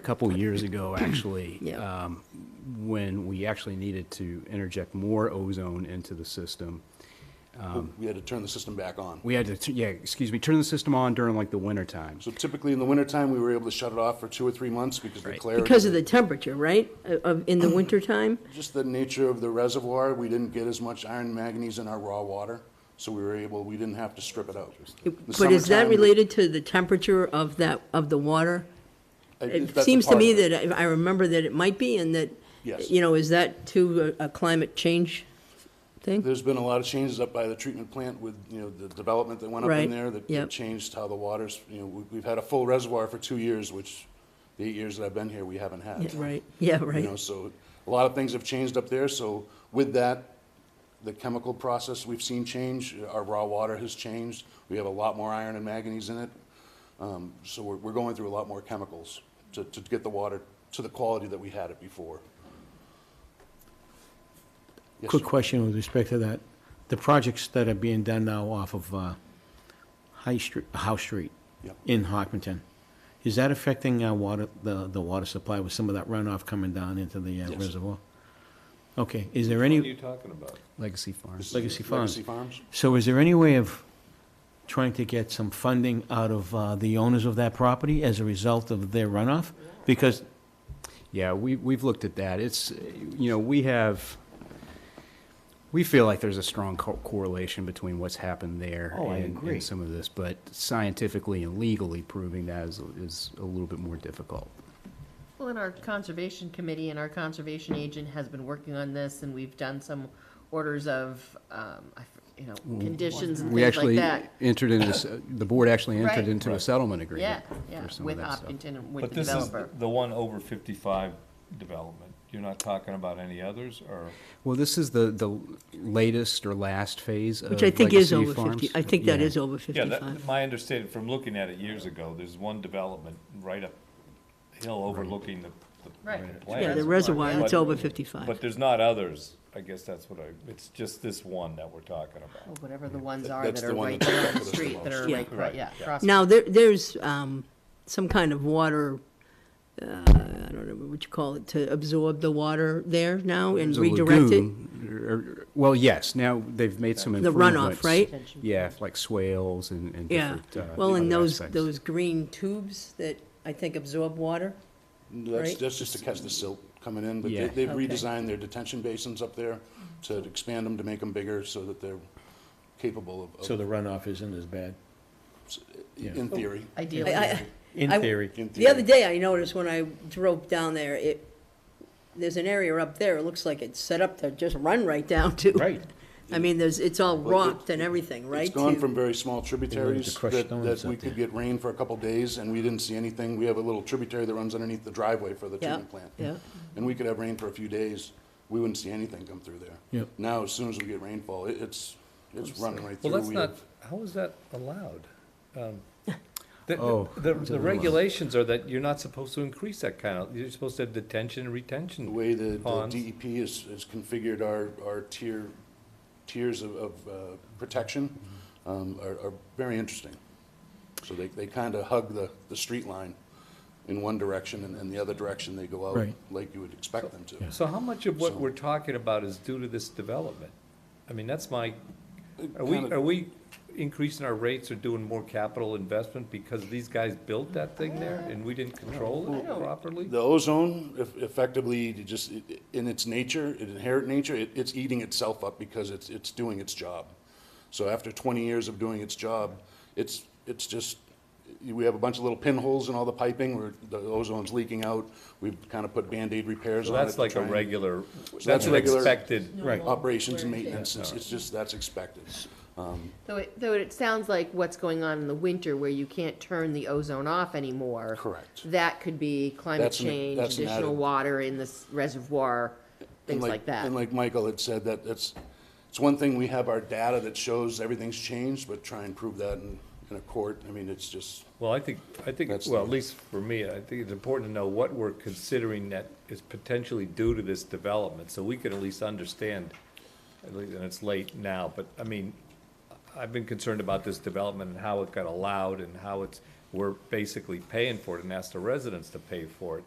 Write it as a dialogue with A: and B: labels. A: a couple years ago, actually,
B: Yeah.
A: um, when we actually needed to interject more ozone into the system.
C: We had to turn the system back on.
A: We had to, t- yeah, excuse me, turn the system on during like the winter times.
C: So typically in the wintertime, we were able to shut it off for two or three months because the clarity.
B: Because of the temperature, right? Of- Of, in the
C: Mm-hmm.
B: wintertime?
C: Just the nature of the reservoir, we didn't get as much iron manganese in our raw water, so we were able, we didn't have to strip it out. The
B: But is that
C: summertime,
B: related to the temperature of that, of the water?
C: I-
B: It
C: that's a
B: seems to
C: part
B: me
C: of it.
B: that, I I remember that it might be, and that,
C: Yes.
B: you know, is that too a a climate change thing?
C: There's been a lot of changes up by the treatment plant with, you know, the development that went up
B: Right,
C: in there that
B: yep.
C: that changed how the waters, you know, we- we've had a full reservoir for two years, which the eight years that I've been here, we haven't had.
B: Yeah, Right, yeah,
C: You know,
B: right.
C: so a lot of things have changed up there, so with that, the chemical process we've seen change, our raw water has changed, we have a lot more iron and manganese in it. Um, So we're, we're going through a lot more chemicals to, to get the water to the quality that we had it before. Yes,
D: Quick
C: sir.
D: question with respect to that. The projects that are being done now off of uh, High Street, House Street
C: Yep.
D: in Hockington, is that affecting our water, the, the water supply with some of that runoff coming down into the uh,
C: Yes.
D: reservoir? Okay, is there
E: What are you
D: any,
E: talking about?
A: Legacy Farm.
C: This is
D: Legacy Farms.
C: Legacy Farms?
D: so is there any way of trying to get some funding out of uh, the owners of that property as a result of their runoff? Because
A: Yeah, we, we've looked at that. It's, you know, we have, we feel like there's a strong co- correlation between what's happened there
D: Oh, I
A: and,
D: agree.
A: and some of this, but scientifically and legally proving that is, is a little bit more difficult.
F: Well, and our conservation committee and our conservation agent has been working on this, and we've done some orders of, um, I f- you know, conditions and
A: Mm-hmm. We
F: things like
A: actually
F: that.
A: entered into, s- the board actually entered
F: Right.
A: into a settlement
F: Yeah,
A: agreement
F: yeah,
A: for some of
F: with
A: that stuff.
F: Optington and with
E: But
F: the
E: this is
F: developer.
E: the one over fifty-five development. You're not talking about any others, or?
A: Well, this is the, the latest or last phase of
B: Which I think is
A: uh, Legacy
B: over
A: Farms.
B: 50, I think that
A: Yeah.
B: is over
E: Yeah, that,
B: 55.
E: my understanding from looking at it years ago, there's one development right up hill overlooking the, the-
F: Right.
E: the
F: Yeah,
E: plant.
B: Yeah, the reservoir,
F: yeah.
B: it's
E: But-
B: over
E: But
B: 55.
E: there's not others. I guess that's what I, it's just this one that we're talking
F: Or
E: about.
F: Oh, Whatever the ones are
C: that's
F: that
C: the
F: are
C: one
F: right
C: that's
F: there on the
C: affected us the
F: street, that
C: most.
F: are
B: Yeah.
F: right, right,
E: Right,
F: yeah.
E: yeah.
F: across-
B: Now, there, there's um, some kind of water, uh, I don't know what you call it, to absorb the water there now and
A: There's a
B: redirect it?
A: lagoon, or- or- Well, yes, now they've made some
B: The
A: improvements.
B: runoff, right?
A: Yeah, like swales and, and
B: Yeah,
A: different. uh,
B: well, and
A: other
B: those,
A: aspects.
B: those green tubes that I think absorb water,
C: That's,
B: Right.
C: that's just to catch the silt coming in, but
A: Yeah.
C: they- they've
B: Okay.
C: redesigned their detention basins up there to expand them, to make them bigger, so that they're capable of-
D: So
C: of,
D: the runoff isn't as bad,
C: in theory.
F: Ideally,
B: I- I-
D: in
B: I-
D: theory.
C: in
B: The other
C: theory.
B: day, I noticed when I drove down there, it, there's an area up there, it looks like it's set up to just run right down to.
D: Right.
B: I mean, there's, it's all
C: Well, it-
B: rocked and everything, right?
C: It's gone
B: to-
C: from very small tributaries
D: crush
C: that,
D: stones
C: that we
D: up
C: could
D: there.
C: get rain for a couple days and we didn't see anything. We have a little tributary that runs underneath the driveway for the
B: Yeah,
C: treatment plant.
B: yeah.
C: And we could have rain for a few days. We wouldn't see anything come through there.
D: Yep.
C: Now, as soon as we get rainfall, it, it's, it's running right through.
G: Well, that's
C: We
G: not,
C: have-
G: how is that allowed? Um, The,
A: Oh,
G: the- the regulations are that you're not supposed to increase that kind of, you're supposed to have detention and retention.
C: The way the the
G: ponds.
C: DEP is, is configured our, our tier, tiers of, of uh, protection um, are, are very interesting. So they, they kind of hug the, the street line in one direction and, and the other direction they go out
D: Right.
C: like you would expect them to.
G: So how much of what
C: So-
G: we're talking about is due to this development? I mean, that's my,
C: It
G: are we,
C: Uh, kinda-
G: are we increasing our rates or doing more capital investment because these guys built that thing there and we didn't control it properly?
C: The ozone eff- effectively it just, i- i- in its nature, in inherent nature, it, it's eating itself up because it's, it's doing its job. So after twenty years of doing its job, it's, it's just, we have a bunch of little pinholes in all the piping where the ozone's leaking out. We've kind of put Band-Aid repairs
G: So
C: on it.
G: that's
C: to
G: like a
C: try and-
G: regular,
C: So
G: that's an
C: regular
G: expected,
C: Operations and
F: Right.
C: maintenance, it's, it's just, that's expected.
F: Though it, though it sounds like what's going on in the winter where you can't turn the ozone off anymore.
C: Correct.
F: That could be climate
C: That's an-
F: change,
C: that's an
F: additional
C: added-
F: water in this reservoir,
C: And
F: things like that.
C: And like Michael had said, that, that's, it's one thing, we have our data that shows everything's changed, but try and prove that in, in a court, I mean, it's just,
G: well, I think, I think,
C: That's
G: well,
C: the-
G: at least for me, I think it's important to know what we're considering that is potentially due to this development, so we can at least understand, at least, and it's late now, but, I mean, I've been concerned about this development and how it got allowed and how it's we're basically paying for it and ask the residents to pay for it.